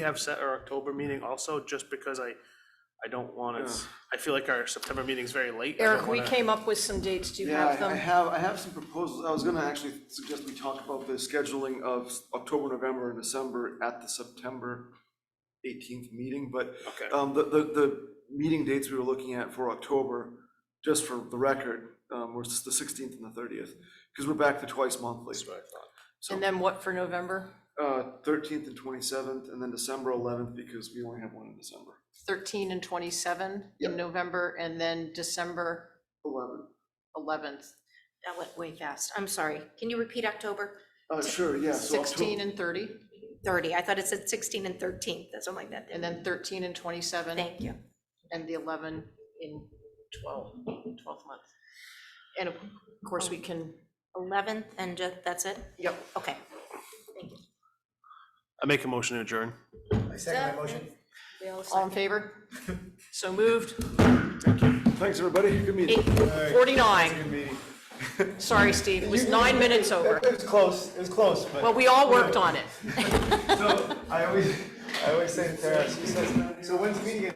have set our October meeting also, just because I, I don't want to, I feel like our September meeting's very late. I don't Eric, we wanna- came up with some dates, do you Yeah, have I- I them? have, I have some proposals. I was gonna actually suggest we talk about the scheduling of s- October, November, and December at the September eighteenth meeting, but Okay, um, the, the, the meeting dates we were looking at for October, just for the record, um, was the sixteenth and the thirtieth, because we're back to twice monthly. that's what I thought. And then what for November? Uh, thirteenth and twenty-seventh, and then December eleventh, because we only have one in December. 13 and 27 Yep. in November, and then December Eleven. 11th, That went way fast. I'm sorry. Can you repeat October? Uh, sure, yeah, so Octo- 16 and 30, 30. I thought it said 16 and 13. That's something like that. and then 13 and 27. Thank you. and the 11 in 12, 12th month. And of course, we can, 11th and ju- that's it? yep, Okay. I make a motion to adjourn. I second my motion. all in favor? So moved. Thanks, everybody. Good meeting. 49. Good meeting. Sorry, Steve, it was nine minutes over. It was close, it was close, but. Well, we all worked on it. So, I always, I always say to Tara, she says, so when's the meeting?